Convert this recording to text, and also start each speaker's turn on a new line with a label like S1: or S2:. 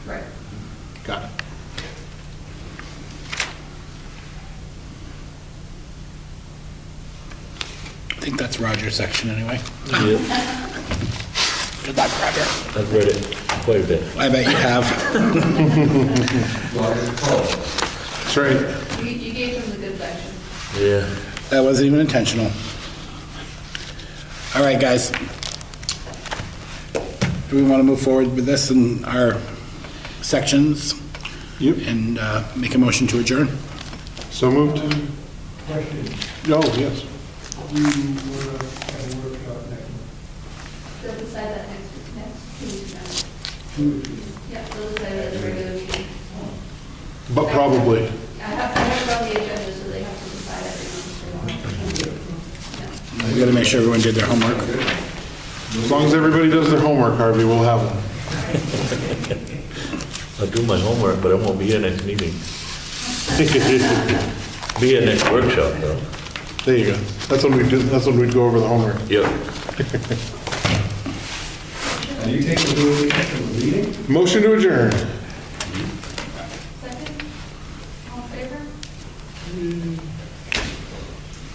S1: think that's Roger's section anyway.
S2: Yeah,
S1: Good luck, Roger.
S2: I've read it quite a bit.
S1: I bet you have.
S3: That's right.
S4: You you gave them the good section.
S2: Yeah.
S1: That wasn't even intentional. All right, guys. Do we want to move forward with this in our sections
S3: Yep,
S1: and uh, make a motion to adjourn?
S3: so moved. Oh, yes.
S5: we were at a workshop next,
S4: They'll decide that next, next two weeks now. Yeah, they'll decide that at the regular meeting.
S3: But probably.
S4: I have, I have it on the agenda, so they have to decide every month if they want. Yeah.
S1: We got to make sure everyone did their homework.
S3: As long as everybody does their homework, Harvey, we'll have them.
S2: I'll do my homework, but I won't be here next meeting. Be here next workshop, though.
S3: There you go. That's when we do, that's when we'd go over the homework.
S2: Yep.
S5: Are you taking the lead in the meeting?
S3: Motion to adjourn.